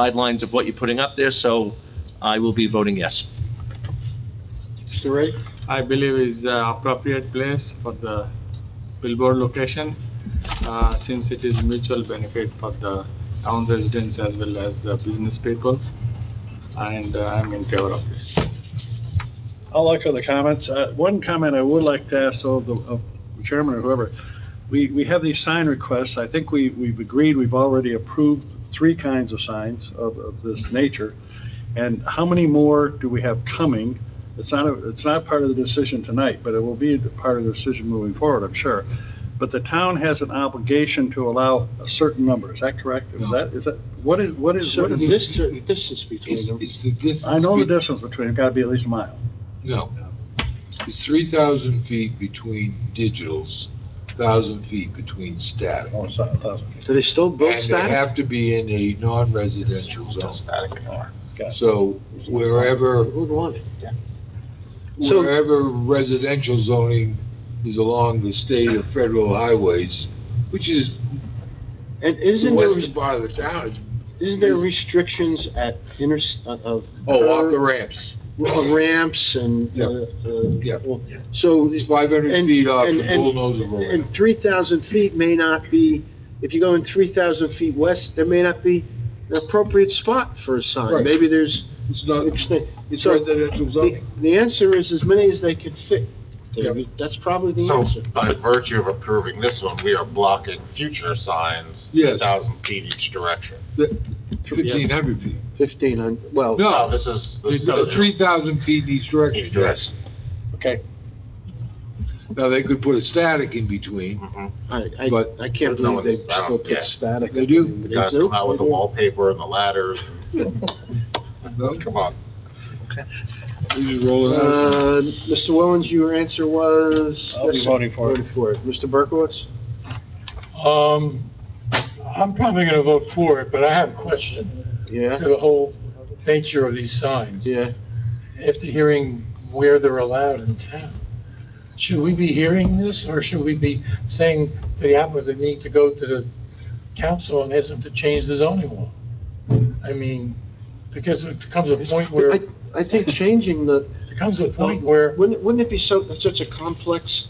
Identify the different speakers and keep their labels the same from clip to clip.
Speaker 1: guidelines of what you're putting up there, so I will be voting yes.
Speaker 2: Mr. Ray?
Speaker 3: I believe is uh, appropriate place for the billboard location, uh, since it is mutual benefit for the town residents as well as the business people, and uh, I'm in favor of this.
Speaker 2: I like other comments. Uh, One comment I would like to ask, though, of the of the chairman or whoever, we, we have these sign requests. I think we, we've agreed, we've already approved three kinds of signs of, of this nature. And how many more do we have coming? It's not, a- it's not part of the decision tonight, but it will be part of the decision moving forward, I'm sure. But the town has an obligation to allow a certain number, is that correct? Is
Speaker 4: No.
Speaker 2: that, is that, what is, what is,
Speaker 5: So
Speaker 2: what is
Speaker 5: the
Speaker 2: this?
Speaker 5: distance, distance between
Speaker 4: It's,
Speaker 5: them,
Speaker 4: it's the distance.
Speaker 2: I know the
Speaker 4: be-
Speaker 2: distance between, it's gotta be at least a mile.
Speaker 4: No. It's three thousand feet between digitals, thousand feet between static.
Speaker 2: Oh, it's not a thousand.
Speaker 5: do they still build
Speaker 4: And they
Speaker 5: static?
Speaker 4: have to be in a non-residential zone.
Speaker 2: Got it.
Speaker 4: So wherever,
Speaker 5: Who'd want it? So-
Speaker 4: wherever residential zoning is along the state or federal highways, which is
Speaker 5: And
Speaker 4: the
Speaker 5: isn't there,
Speaker 4: western part of the town, it's,
Speaker 5: isn't there restrictions at inter, of?
Speaker 4: oh, off the ramps.
Speaker 5: of Ramps and,
Speaker 4: Yeah.
Speaker 5: uh,
Speaker 4: Yeah.
Speaker 5: uh, well, so,
Speaker 4: It's five hundred
Speaker 5: And-
Speaker 4: feet off
Speaker 5: and-
Speaker 4: the
Speaker 5: and-
Speaker 4: bullnose of a ramp.
Speaker 5: and three thousand feet may not be, if you go in three thousand feet west, there may not be an appropriate spot for a sign.
Speaker 4: Right.
Speaker 5: Maybe there's,
Speaker 4: It's not, it's
Speaker 5: so,
Speaker 4: residential
Speaker 5: the,
Speaker 4: zoning.
Speaker 5: the answer is as many as they can fit.
Speaker 4: Yeah.
Speaker 5: David. That's probably the
Speaker 6: So
Speaker 5: answer.
Speaker 6: by virtue of approving this one, we are blocking future signs,
Speaker 4: Yes.
Speaker 6: 1,000 feet each direction.
Speaker 4: Fifteen hundred feet.
Speaker 5: Fifteen hundred, well.
Speaker 4: No.
Speaker 6: No, this is, this
Speaker 4: It's
Speaker 6: is
Speaker 4: three thousand feet in each direction.
Speaker 6: each direction.
Speaker 5: Okay.
Speaker 4: Now, they could put a static in between.
Speaker 6: Mhm.
Speaker 5: I, I,
Speaker 4: But-
Speaker 5: I can't
Speaker 6: No,
Speaker 5: believe they
Speaker 6: it's- I don't-
Speaker 5: still
Speaker 6: yeah.
Speaker 5: put static.
Speaker 4: They do.
Speaker 5: They
Speaker 6: You guys
Speaker 5: do,
Speaker 6: come out with
Speaker 5: they
Speaker 6: the
Speaker 5: do.
Speaker 6: wallpaper and the ladders,
Speaker 2: Uh-huh.
Speaker 4: No?
Speaker 6: come on.
Speaker 4: You just roll it out.
Speaker 5: Uh, Mr. Wellens, your answer was?
Speaker 2: I'll be
Speaker 5: Yes, sir.
Speaker 2: voting for it.
Speaker 5: Voting for it. Mr. Berkowitz?
Speaker 7: Um, I'm probably gonna vote for it, but I have a question to
Speaker 5: Yeah,
Speaker 7: the whole nature of these signs.
Speaker 5: yeah.
Speaker 7: After hearing where they're allowed in town, should we be hearing this, or should we be saying to the applicants they need to go to the council and ask them to change the zoning law? I mean, because it comes a point where,
Speaker 5: I,
Speaker 7: it
Speaker 5: I think changing the,
Speaker 7: comes a point where,
Speaker 5: wouldn't, wouldn't it be so, such a complex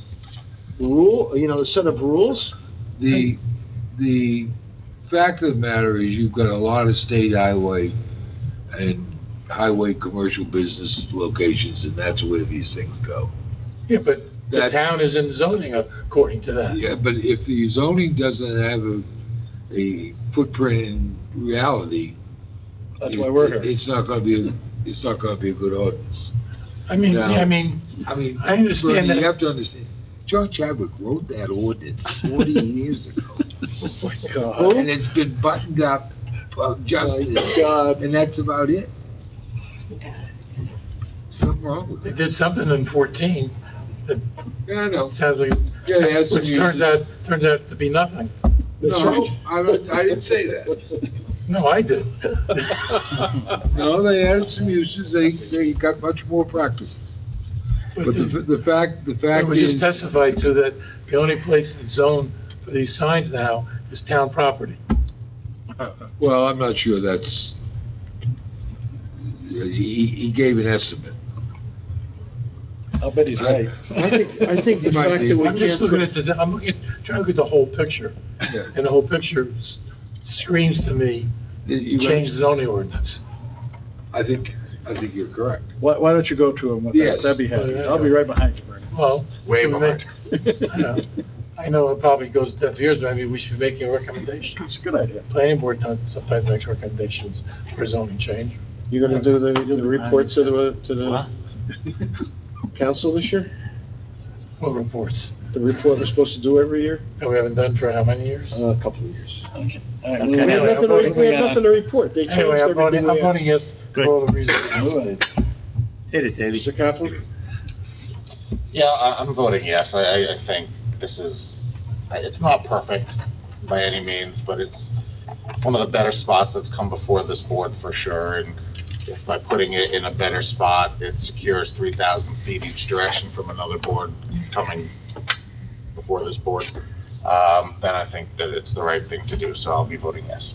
Speaker 5: rule, you know, a set of rules?
Speaker 4: The, the fact of the matter is you've got a lot of state highway and highway commercial business locations, and that's where these things go.
Speaker 7: yeah, but the
Speaker 4: That's-
Speaker 7: town is in zoning according to that.
Speaker 4: Yeah, but if the zoning doesn't have a, a footprint in reality.
Speaker 2: That's why we're
Speaker 4: it-
Speaker 2: here.
Speaker 4: It's not gonna be, a- it's not gonna be a good ordinance.
Speaker 7: I mean,
Speaker 4: Yeah.
Speaker 7: I mean,
Speaker 4: I mean,
Speaker 7: I understand
Speaker 4: Bernie,
Speaker 7: that.
Speaker 4: You have to understand, John Chadwick wrote that ordinance forty years ago, and it's been buttoned up, uh,
Speaker 5: My
Speaker 4: adjusted,
Speaker 5: God.
Speaker 4: and that's about it. Something wrong with
Speaker 7: They
Speaker 4: it.
Speaker 7: did something in 14
Speaker 4: Yeah, I know.
Speaker 7: Sounds like,
Speaker 4: Yeah, it has some
Speaker 7: which turns
Speaker 4: uses.
Speaker 7: out, turns out to be nothing.
Speaker 4: No, I, don't- I didn't say that.
Speaker 7: No, I did.
Speaker 4: No, they added some uses, they, they got much more practice. But the,
Speaker 7: But
Speaker 4: the fact, the
Speaker 7: It
Speaker 4: fact
Speaker 7: was just
Speaker 4: is,
Speaker 7: testified to that the only place that's zoned for these signs now is town property.
Speaker 4: well, I'm not sure that's, he, he gave an estimate.
Speaker 2: I'll bet he's right.
Speaker 5: I think, I think the
Speaker 4: Might
Speaker 5: fact
Speaker 4: be.
Speaker 5: that we
Speaker 7: I'm just
Speaker 5: can't
Speaker 7: looking
Speaker 5: put
Speaker 7: at the, I'm looking, trying to look at the whole picture,
Speaker 4: Yeah.
Speaker 7: and the whole picture s- screams to me,
Speaker 4: You-
Speaker 7: change the zoning ordinance.
Speaker 4: I think, I think you're correct.
Speaker 2: Why, why don't you go to him with that?
Speaker 4: Yes.
Speaker 2: That'd be happy. I'll be right behind you, Bernie.
Speaker 7: Well.
Speaker 6: Way
Speaker 7: should we make-
Speaker 6: behind.
Speaker 7: I know. I know it probably goes deaf ears, but maybe we should be making
Speaker 2: It's
Speaker 7: recommendations.
Speaker 2: a good idea.
Speaker 7: Planning board does sometimes makes recommendations for zoning change.
Speaker 5: You're gonna do the, the report to the, to the council this year?
Speaker 7: What reports?
Speaker 5: The report we're supposed to do every year?
Speaker 7: That we haven't done for how many years?
Speaker 5: Uh, A couple of years.
Speaker 2: All right,
Speaker 5: We have
Speaker 7: Anyway,
Speaker 5: nothing, to re- we have nothing to report. They changed
Speaker 7: Anyway, I'm voting,
Speaker 5: everything.
Speaker 7: I'm
Speaker 5: we
Speaker 7: voting yes for all the reasons.
Speaker 2: move
Speaker 1: Hit it,
Speaker 5: had.
Speaker 1: Davey.
Speaker 5: Mr. Kaplan?
Speaker 6: Yeah, I, I'm voting yes. I, I, I think this is, I- it's not perfect by any means, but it's one of the better spots that's come before this board for sure. And if by putting it in a better spot, it secures three thousand feet each direction from another board coming before this board, um, then I think that it's the right thing to do, so I'll be voting yes.